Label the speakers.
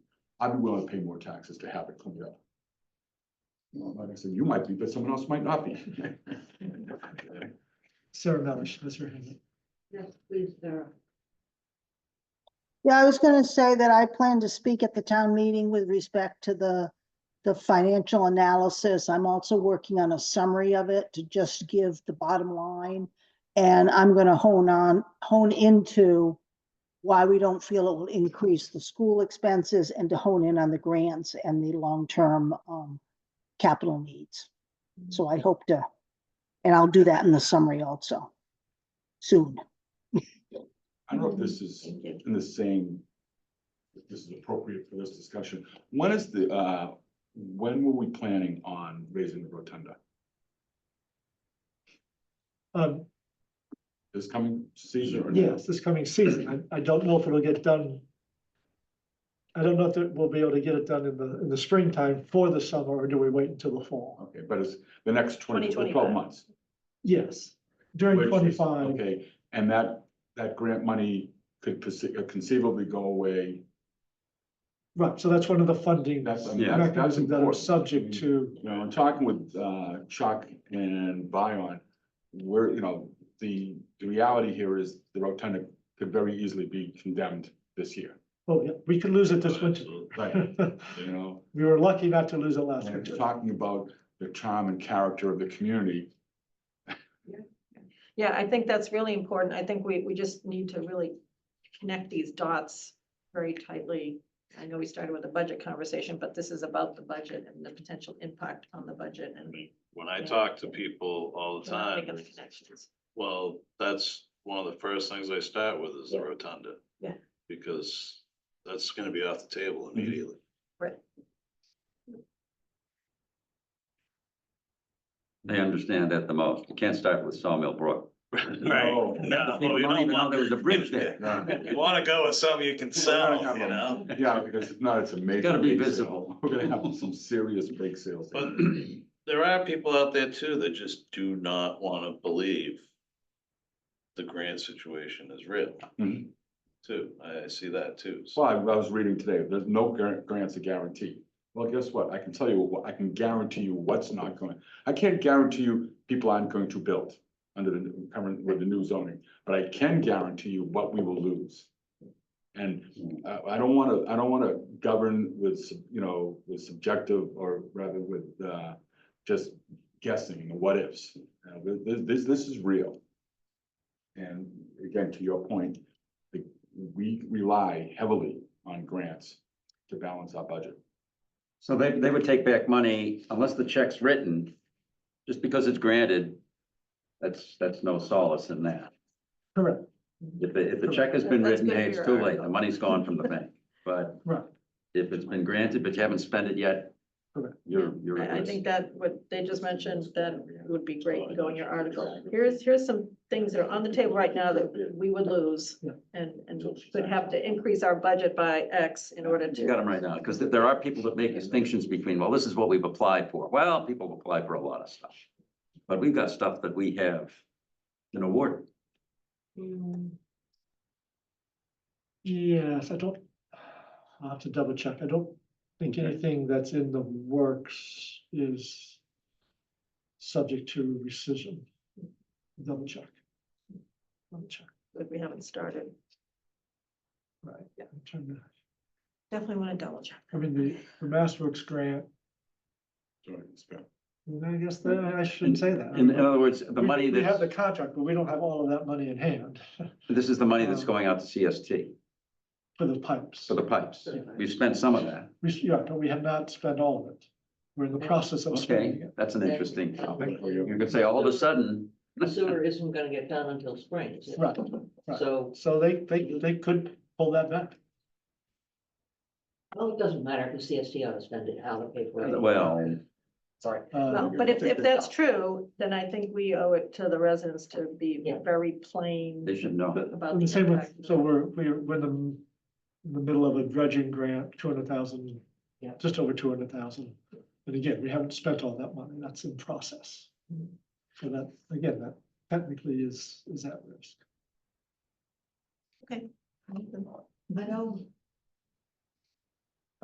Speaker 1: I'd be willing to pay more taxes to have it cleaned up. Well, Like I said, you might be, but someone else might not be.
Speaker 2: Sarah Melish, Mr. Hanley.
Speaker 3: Yes, please, Sarah.
Speaker 4: Yeah, I was gonna say that I plan to speak at the town meeting with respect to the, the financial analysis. I'm also working on a summary of it to just give the bottom line. And I'm gonna hone on, hone into why we don't feel it will increase the school expenses and to hone in on the grants and the long-term, um, capital needs. So I hope to, and I'll do that in the summary also, soon.
Speaker 1: I don't know if this is
Speaker 3: Thank you.
Speaker 1: in the same, if this is appropriate for this discussion. When is the, uh, when were we planning on raising the rotunda?
Speaker 2: Um,
Speaker 1: This coming season or?
Speaker 2: yes, this coming season. I, I don't know if it'll get done. I don't know if that we'll be able to get it done in the, in the springtime for the summer, or do we wait until the fall?
Speaker 1: Okay, but it's the next twenty, the twelve
Speaker 3: 2025.
Speaker 1: months.
Speaker 2: Yes, during
Speaker 1: which is-
Speaker 2: twenty-five,
Speaker 1: Okay, and that, that grant money could perce- uh, conceivably go away.
Speaker 2: right, so that's one of the funding
Speaker 1: That's- I mean, that's- that's
Speaker 2: mechanisms that are
Speaker 1: important.
Speaker 2: subject to,
Speaker 1: You know, I'm talking with, uh, Chuck and Bion, where, you know, the, the reality here is the rotunda could very easily be condemned this year.
Speaker 2: oh, yeah, we could lose it this winter.
Speaker 1: Right, you know,
Speaker 2: We were lucky not to lose it last
Speaker 1: and it's
Speaker 2: winter.
Speaker 1: talking about the charm and character of the community.
Speaker 3: Yeah, I think that's really important. I think we, we just need to really connect these dots very tightly. I know we started with a budget conversation, but this is about the budget and the potential impact on the budget and.
Speaker 5: mean, When I
Speaker 3: Yeah.
Speaker 5: talk to people all the
Speaker 3: so I'm making
Speaker 5: time,
Speaker 3: the connections.
Speaker 5: well, that's one of the first things I start with is the
Speaker 3: Yeah.
Speaker 5: rotunda.
Speaker 3: Yeah.
Speaker 5: Because that's gonna be off the table
Speaker 6: Mm-hmm.
Speaker 5: immediately.
Speaker 6: They understand that the most. You can't start with Sawmill Brook.
Speaker 5: Right.
Speaker 1: No.
Speaker 5: No,
Speaker 6: They
Speaker 5: you
Speaker 6: don't
Speaker 5: don't
Speaker 6: even know
Speaker 5: want-
Speaker 6: there was a bridge there.
Speaker 1: Yeah,
Speaker 5: You wanna go with something you can sell, you know?
Speaker 1: Yeah, because if not, it's amazing.
Speaker 6: gotta be visible.
Speaker 1: We're gonna have some serious bake sales.
Speaker 5: But there are people out there too that just do not wanna believe the grant situation is real
Speaker 6: Mm-hmm.
Speaker 1: Mhm.
Speaker 5: too. I I see that too. So
Speaker 1: Well, I I was reading today, there's no guar- grants are guaranteed. Well, guess what? I can tell you, what- I can guarantee you what's not going, I can't guarantee you people aren't going to build under the current, with the new zoning, but I can guarantee you what we will lose. And I, I don't wanna, I don't wanna govern with, sub- you know, with subjective or rather with, uh, just guessing and what ifs. Uh, th- th- This, this is real. And again, to your point, the- we rely heavily on grants to balance our budget.
Speaker 6: So they, they would take back money unless the check's written, just because it's granted. That's, that's no solace in that.
Speaker 2: Correct,
Speaker 6: If, the- if the check has been
Speaker 3: That's
Speaker 6: written,
Speaker 3: good
Speaker 6: hey,
Speaker 3: for
Speaker 6: it's
Speaker 3: your
Speaker 6: too late. The
Speaker 3: article.
Speaker 6: money's gone from the bank. But
Speaker 2: right.
Speaker 6: if it's been granted, but you haven't spent it yet,
Speaker 2: Correct.
Speaker 6: you're, you're. at
Speaker 3: I, I
Speaker 6: risk.
Speaker 3: think that what they just mentioned, that would be great to go in your article. Here's, here's some things that are on the table right now that we would lose
Speaker 2: Yeah.
Speaker 3: and, and would have to increase our budget by X in order to.
Speaker 6: You got them right now, because there are people that make distinctions between, well, this is what we've applied for. Well, people apply for a lot of stuff. But we've got stuff that we have been awarded.
Speaker 3: Mm,
Speaker 2: Yes, I don't, I'll have to double check. I don't think
Speaker 6: Okay.
Speaker 2: anything that's in the works is subject to rescission. Double check. Double check,
Speaker 3: But we haven't started.
Speaker 2: right.
Speaker 3: Yeah.
Speaker 2: I'm trying to-
Speaker 3: Definitely want to double check.
Speaker 2: I mean, the, the Mass Works grant, and I guess that I shouldn't say that.
Speaker 6: In, in other words, uh, the
Speaker 2: We-
Speaker 6: money
Speaker 2: We have the
Speaker 6: that's,
Speaker 2: contract, but we don't have all of that money in hand
Speaker 6: this is the money that's
Speaker 2: Um,
Speaker 6: going out to CST
Speaker 2: for the pipes.
Speaker 6: for the pipes.
Speaker 2: Yeah.
Speaker 6: We've spent some of that.
Speaker 2: We, yeah, but we have not spent all of it. We're in the process of spending
Speaker 6: Okay,
Speaker 2: it.
Speaker 6: that's an
Speaker 7: Yeah.
Speaker 6: interesting topic. You
Speaker 1: Well,
Speaker 6: could say all of a sudden,
Speaker 7: Sewer isn't gonna get done until spring, is it?
Speaker 2: Right, right.
Speaker 7: So,
Speaker 2: So they, they, they could pull that back.
Speaker 7: well, it doesn't matter, because CST ought to spend it, how to pay for it.
Speaker 6: well,
Speaker 7: Sorry.
Speaker 2: Uh,
Speaker 3: Well, but if, if that's true, then I think we owe it to the residents to be
Speaker 7: Yeah.
Speaker 3: very plain
Speaker 6: they should know.
Speaker 3: about
Speaker 2: And
Speaker 3: the
Speaker 2: the same with,
Speaker 3: impact.
Speaker 2: so we're, we're, we're in the, in the middle of a dredging grant, two hundred thousand,
Speaker 7: Yeah.
Speaker 2: just over two hundred thousand. And again, we haven't spent all that money, that's in process. So that, again, that technically is, is at risk.
Speaker 3: I know